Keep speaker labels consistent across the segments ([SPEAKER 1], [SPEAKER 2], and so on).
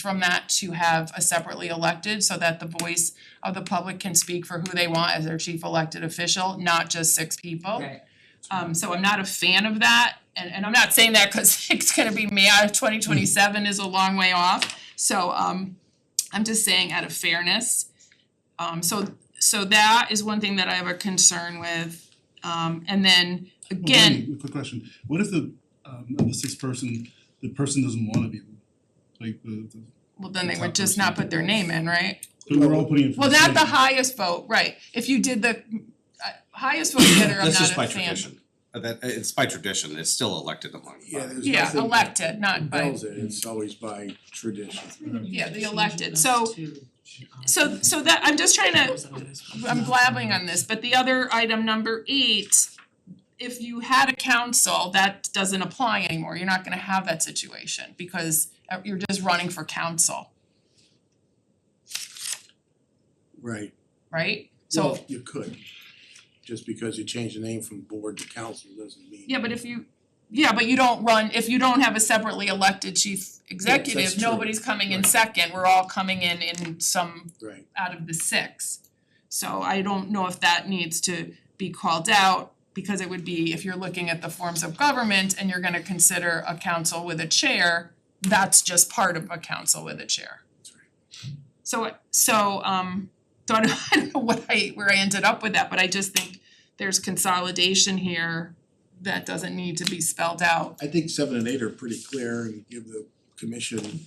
[SPEAKER 1] from that to have a separately elected so that the voice of the public can speak for who they want as their chief elected official, not just six people.
[SPEAKER 2] Right.
[SPEAKER 1] Um so I'm not a fan of that and and I'm not saying that cuz it's gonna be me out of twenty twenty seven is a long way off. So um I'm just saying out of fairness. Um so so that is one thing that I have a concern with. Um and then again,
[SPEAKER 3] Well, wait, a quick question, what if the um of the sixth person, the person doesn't wanna be, like the the,
[SPEAKER 1] well, then they would just not put their name in, right?
[SPEAKER 3] but we're all putting in for
[SPEAKER 1] Well,
[SPEAKER 3] the
[SPEAKER 1] not
[SPEAKER 3] same.
[SPEAKER 1] the highest vote, right, if you did the uh, highest vote getter, I'm
[SPEAKER 4] That's
[SPEAKER 1] not a
[SPEAKER 4] just by
[SPEAKER 1] fan.
[SPEAKER 4] tradition, Uh, that it's by tradition, it's still elected among the
[SPEAKER 5] Yeah,
[SPEAKER 4] body.
[SPEAKER 5] there's
[SPEAKER 1] Yeah,
[SPEAKER 5] nothing.
[SPEAKER 1] elected, not by,
[SPEAKER 5] Tells it, it's always by tradition.
[SPEAKER 1] yeah, the elected, so so so that, I'm just trying to I'm blabbing on this, but the other item number eight, if you had a council, that doesn't apply anymore, you're not gonna have that situation because uh, you're just running for council,
[SPEAKER 5] Right,
[SPEAKER 1] right? So,
[SPEAKER 5] well, you could, just because you change the name from board to council doesn't mean.
[SPEAKER 1] yeah, but if you, yeah, but you don't run, if you don't have a separately elected chief executive,
[SPEAKER 5] true.
[SPEAKER 1] nobody's coming in
[SPEAKER 5] Right.
[SPEAKER 1] second, we're all coming in in some
[SPEAKER 5] Right,
[SPEAKER 1] out of the six. So I don't know if that needs to be called out because it would be if you're looking at the forms of government and you're gonna consider a council with a chair, that's just part of a council with a chair.
[SPEAKER 5] That's
[SPEAKER 1] So so um so I don't I don't know what I where I ended up with that, but I just think there's consolidation here that doesn't need to be spelled out.
[SPEAKER 5] I think seven and eight are pretty clear and give the commission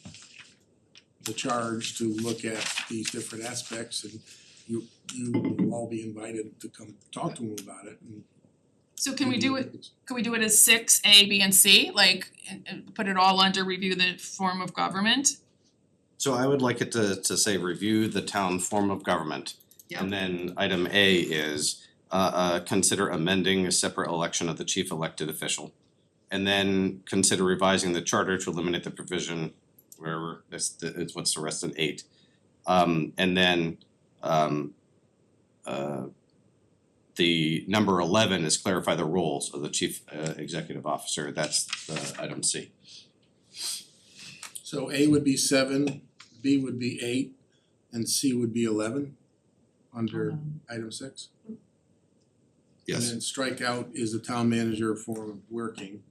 [SPEAKER 5] the charge to look at these different aspects and you you will all be invited to come talk to them about it and.
[SPEAKER 1] So can we do it Could we do it as six, A, B, and C, like and and put it all under review the form of government?
[SPEAKER 4] So I would like it to to say review the town form of government. And then item A is uh uh consider amending a separate election of the chief elected official. And then consider revising the charter to eliminate the provision wherever this the it's what's the rest in eight. Um and then um uh the number eleven is clarify the roles of the chief uh executive officer, that's the item C.
[SPEAKER 5] So A would be seven, B would be eight, and C would be eleven under item six. And then strike out is the town manager form of working.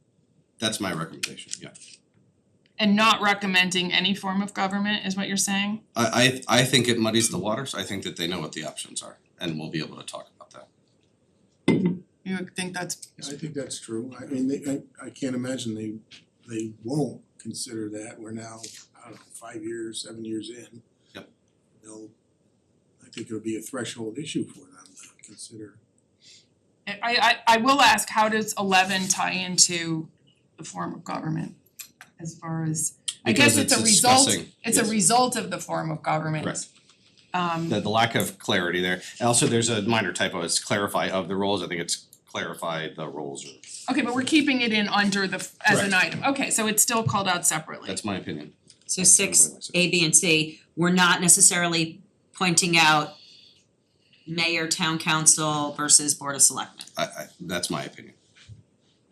[SPEAKER 4] That's my recommendation, yeah.
[SPEAKER 1] And not recommending any form of government is what you're saying?
[SPEAKER 4] I I I think it muddies the waters. I think that they know what the options are and we'll be able to talk about that.
[SPEAKER 1] You would think that's,
[SPEAKER 5] I think that's true. I mean, they, I I can't imagine they they won't consider that. We're now, I don't know, five years, seven years in.
[SPEAKER 4] Yep.
[SPEAKER 5] They'll, I think it'll be a threshold issue for them to consider.
[SPEAKER 1] I I I will ask, how does eleven tie into the form of government? As far as, I guess
[SPEAKER 4] Because
[SPEAKER 1] it's a result,
[SPEAKER 4] discussing-
[SPEAKER 1] it's a
[SPEAKER 4] yes,
[SPEAKER 1] result of the form of government.
[SPEAKER 4] Correct.
[SPEAKER 1] Um
[SPEAKER 4] The the lack of clarity there. And also there's a minor typo, it's clarify of the roles. I think it's clarify the roles or
[SPEAKER 1] okay, but we're keeping it in under the as an item, okay, so it's still called out separately.
[SPEAKER 4] that's my opinion.
[SPEAKER 2] So six, A, B, and C, we're not necessarily pointing out mayor, town council versus board of selectmen.
[SPEAKER 4] I I that's my opinion.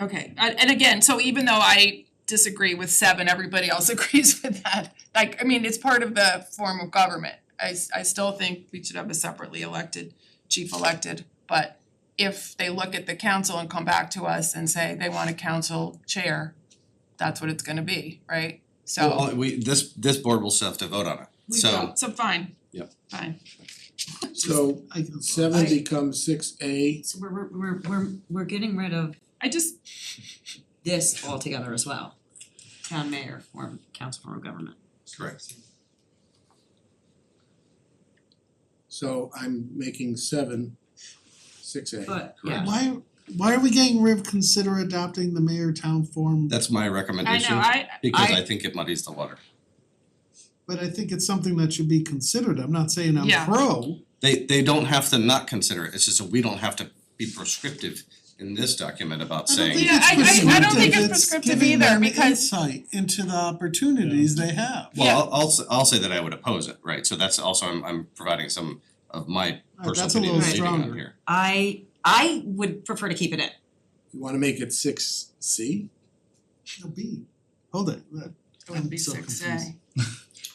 [SPEAKER 1] Okay, and and again, so even though I disagree with seven, everybody else agrees with that. Like, I mean, it's part of the form of government. I s- I still think we should have a separately elected, chief elected, but if they look at the council and come back to us and say they want a council chair, that's what it's gonna be, right? So,
[SPEAKER 4] Well, we this this board will still have to vote on it.
[SPEAKER 1] we
[SPEAKER 4] So
[SPEAKER 1] don't, so fine.
[SPEAKER 4] Yep.
[SPEAKER 1] Fine,
[SPEAKER 5] So seven becomes six A.
[SPEAKER 2] So we're we're we're we're we're getting rid of
[SPEAKER 1] I just,
[SPEAKER 2] this altogether as well. Town mayor form, council form of government.
[SPEAKER 4] correct.
[SPEAKER 5] So I'm making seven, six A.
[SPEAKER 2] But yeah,
[SPEAKER 6] Why why are we getting rid of consider adopting the mayor town form?
[SPEAKER 4] That's my
[SPEAKER 1] I know,
[SPEAKER 4] recommendation
[SPEAKER 1] I
[SPEAKER 4] because
[SPEAKER 1] I-
[SPEAKER 4] I think it muddies the water.
[SPEAKER 6] But I think it's something that should be considered. I'm not saying I'm
[SPEAKER 1] Yeah.
[SPEAKER 6] pro.
[SPEAKER 4] They they don't have to not consider it. It's just that we don't have to be prescriptive in this document about
[SPEAKER 6] I don't
[SPEAKER 4] saying
[SPEAKER 6] think
[SPEAKER 1] Yeah, I-
[SPEAKER 6] it's
[SPEAKER 1] I- I don't think it's
[SPEAKER 6] prescriptive. It's
[SPEAKER 1] prescriptive
[SPEAKER 6] giving
[SPEAKER 1] either
[SPEAKER 6] them
[SPEAKER 1] because-
[SPEAKER 6] insight into the opportunities they have.
[SPEAKER 1] Yeah.
[SPEAKER 4] Well, I'll I'll s- I'll say that I would oppose it, right, so that's also, I'm I'm providing some of my
[SPEAKER 6] Right, Oh,
[SPEAKER 4] personal
[SPEAKER 6] that's a
[SPEAKER 4] opinion
[SPEAKER 6] little
[SPEAKER 4] leading on
[SPEAKER 6] stronger.
[SPEAKER 4] here.
[SPEAKER 2] I I would prefer to keep it in.
[SPEAKER 5] You wanna make it six C?
[SPEAKER 6] It'll be- Hold it.
[SPEAKER 1] it would be
[SPEAKER 6] I'm so
[SPEAKER 1] six A.
[SPEAKER 6] confused.